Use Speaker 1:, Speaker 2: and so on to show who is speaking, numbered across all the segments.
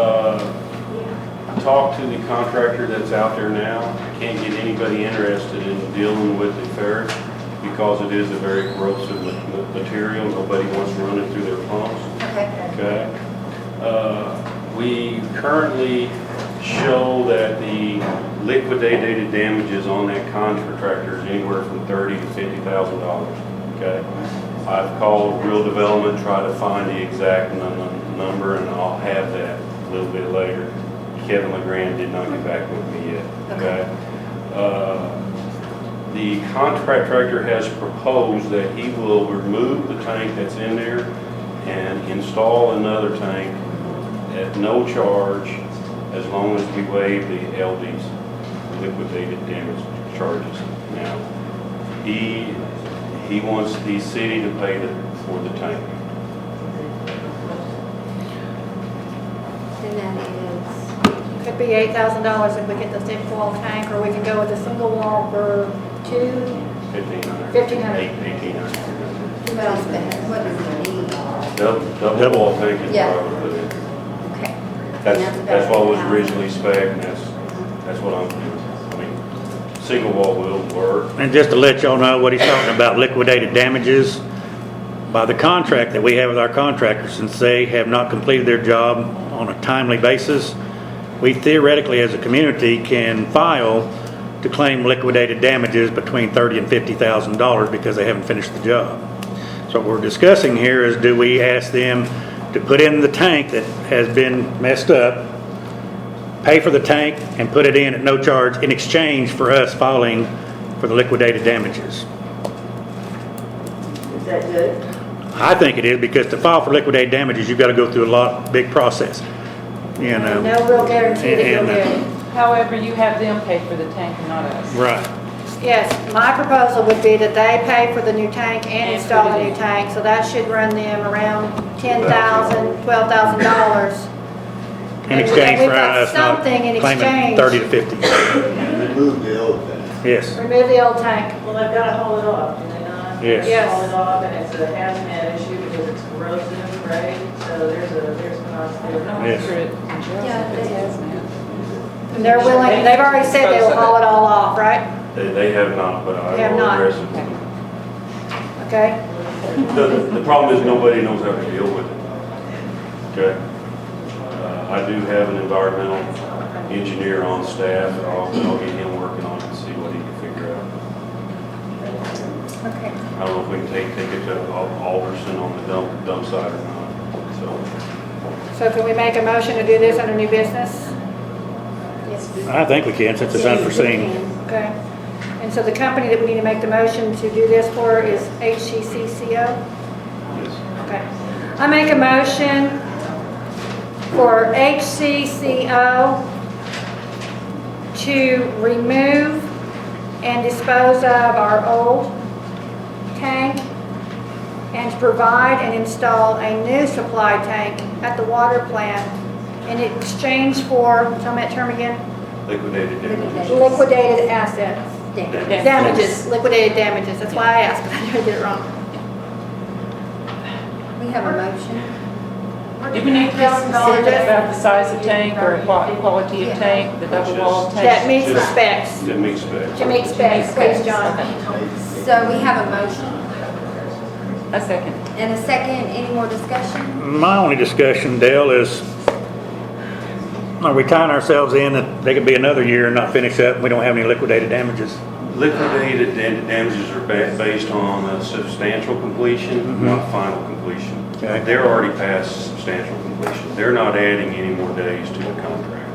Speaker 1: uh, talked to the contractor that's out there now. I Can't get anybody interested in dealing with the ferrous because it is a very corrosive ma- ma- material. Nobody wants to run it through their pumps.
Speaker 2: Okay.
Speaker 1: Okay. Uh, We currently show that the liquidated damages on that contractor is anywhere from thirty to fifty thousand dollars, okay? I've called Real Development, try to find the exact num- number, and I'll have that a little bit later. Kevin LeGrand did not get back with me yet, okay? Uh, the contractor has proposed that he will remove the tank that's in there and install another tank at no charge as long as we waive the LDs, liquidated damage charges. Now, he, he wants the city to pay the- for the tank.
Speaker 2: And that
Speaker 3: Could be eight thousand dollars if we get the thin wall tank, or we can go with a single wall for two.
Speaker 1: Fifteen hundred.
Speaker 3: $1,500.
Speaker 1: Eighteen hundred.
Speaker 2: is, what else, but what is the need?
Speaker 1: Double, double wall tank is
Speaker 2: Yeah.
Speaker 1: probably, the-
Speaker 2: Okay.
Speaker 1: that's,
Speaker 2: about
Speaker 1: that's what was
Speaker 2: 8,000.
Speaker 1: originally spec, and that's, that's what I'm doing. I mean, single wall will work.
Speaker 4: And just to let y'all know what he's talking about, liquidated damages by the contract that we have with our contractors, since they have not completed their job on a timely basis, we theoretically, as a community, can file to claim liquidated damages between thirty and fifty thousand dollars because they haven't finished the job. So what we're discussing here is, do we ask them to put in the tank that has been messed up, pay for the tank and put it in at no charge in exchange for us filing for the liquidated damages.
Speaker 5: Is that good?
Speaker 4: I think it is because to file for liquidated damages, you've got to go through a lot, big process, you know?
Speaker 3: No real guarantee that you'll
Speaker 4: And- uh,
Speaker 3: get it.
Speaker 6: However, you have them pay for the tank and not us.
Speaker 4: Right.
Speaker 3: Yes, my proposal would be that they pay for the new tank and
Speaker 6: And
Speaker 3: install
Speaker 6: put
Speaker 3: the
Speaker 6: it
Speaker 3: new
Speaker 6: in.
Speaker 3: tank, so that should run them around ten thousand, twelve thousand dollars.
Speaker 4: In exchange
Speaker 3: We've
Speaker 4: for
Speaker 3: got
Speaker 4: us not
Speaker 3: something in
Speaker 4: claiming
Speaker 3: exchange.
Speaker 4: thirty to fifty.
Speaker 7: Remove the old thing.
Speaker 4: Yes,
Speaker 3: Remove the old tank.
Speaker 5: Well, they've got to haul it off, do they not?
Speaker 4: Yes.
Speaker 3: Yes.
Speaker 5: Haul it off, and it's a hazmat issue because it's corrosive, right? So there's a, there's cost
Speaker 6: I don't know
Speaker 5: there.
Speaker 4: Yes.
Speaker 6: if it in jail,
Speaker 2: Yeah,
Speaker 6: if it's
Speaker 2: it is.
Speaker 6: us now.
Speaker 3: And They're willing, they've already said they will haul it all off, right?
Speaker 1: They, they have not, but
Speaker 3: They have
Speaker 1: I will
Speaker 3: not.
Speaker 1: address it.
Speaker 3: Okay?
Speaker 1: The, the problem is nobody knows how to deal with it. Okay? Uh, I do have an environmental engineer on staff, and I'll, I'll get him working on it and see what he can figure out.
Speaker 2: Okay.
Speaker 1: I don't know if we can take, take it to Al- Alderson on the dump, dump site or not, so.
Speaker 3: So can we make a motion to do this under new business?
Speaker 2: Yes, we-
Speaker 4: I think we can since it's
Speaker 2: Yes, we
Speaker 4: unforeseen.
Speaker 2: can.
Speaker 3: Okay. And so the company that we need to make the motion to do this for is HCCCO?
Speaker 1: yes.
Speaker 3: Okay. I make a motion for HCCO to remove and dispose of our old tank and to provide and install a new supply tank at the water plant in exchange for, tell me that term again?
Speaker 1: Liquidated damages.
Speaker 3: Liquidated assets.
Speaker 2: Damn.
Speaker 6: Yeah.
Speaker 3: Damages, liquidated damages, that's why I asked, because I knew I did it wrong.
Speaker 2: We have a motion.
Speaker 6: Do we need to be specific about the size of tank or qua- quality of tank, the double wall
Speaker 3: That
Speaker 6: tank?
Speaker 3: meets the specs,
Speaker 1: Didn't expect.
Speaker 3: to meet specs, please, John.
Speaker 2: So we have a motion
Speaker 6: A second.
Speaker 2: and a second. Any more discussion?
Speaker 4: My only discussion, Dale, is are we tying ourselves in that they could be another year and not finish up and we don't have any liquidated damages?
Speaker 1: Liquidated da- damages are ba- based on a substantial completion, not final completion.
Speaker 4: Mm-hmm. Okay.
Speaker 1: They're already past substantial completion. They're not adding any more days to the contract.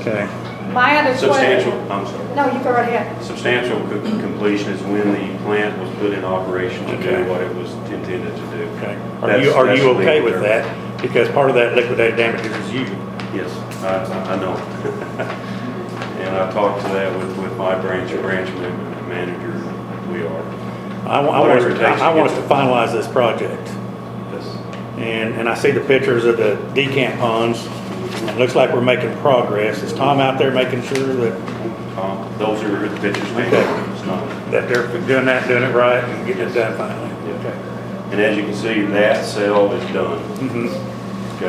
Speaker 4: Okay.
Speaker 3: My other question.
Speaker 1: Substantial, I'm sorry,
Speaker 3: No, you go right ahead.
Speaker 1: substantial co- completion is when the plant was put in operation to
Speaker 4: Okay.
Speaker 1: do what it was intended to do.
Speaker 4: Okay. Are you,
Speaker 1: That's-
Speaker 4: are
Speaker 1: that's
Speaker 4: you
Speaker 1: the
Speaker 4: okay
Speaker 1: legal
Speaker 4: with
Speaker 1: term.
Speaker 4: that? Because part of that liquidated damages is you.
Speaker 1: Yes, I, I- I know. And I talked to that with, with my branch, branch ma- manager, we are.
Speaker 4: I wa- I want,
Speaker 1: Whatever it
Speaker 4: us-
Speaker 1: takes
Speaker 4: I I
Speaker 1: to
Speaker 4: want us
Speaker 1: get
Speaker 4: to finalize this project.
Speaker 1: Yes.
Speaker 4: And, and I see the pictures of the decant ponds. It looks like we're making progress. Is Tom out there making sure that,
Speaker 1: Um, Those are the pictures we
Speaker 4: Okay.
Speaker 1: have. It's not-
Speaker 4: that they're doing that, doing it right and getting it done finally?
Speaker 1: And as you can see, that cell is done.
Speaker 4: Mhm.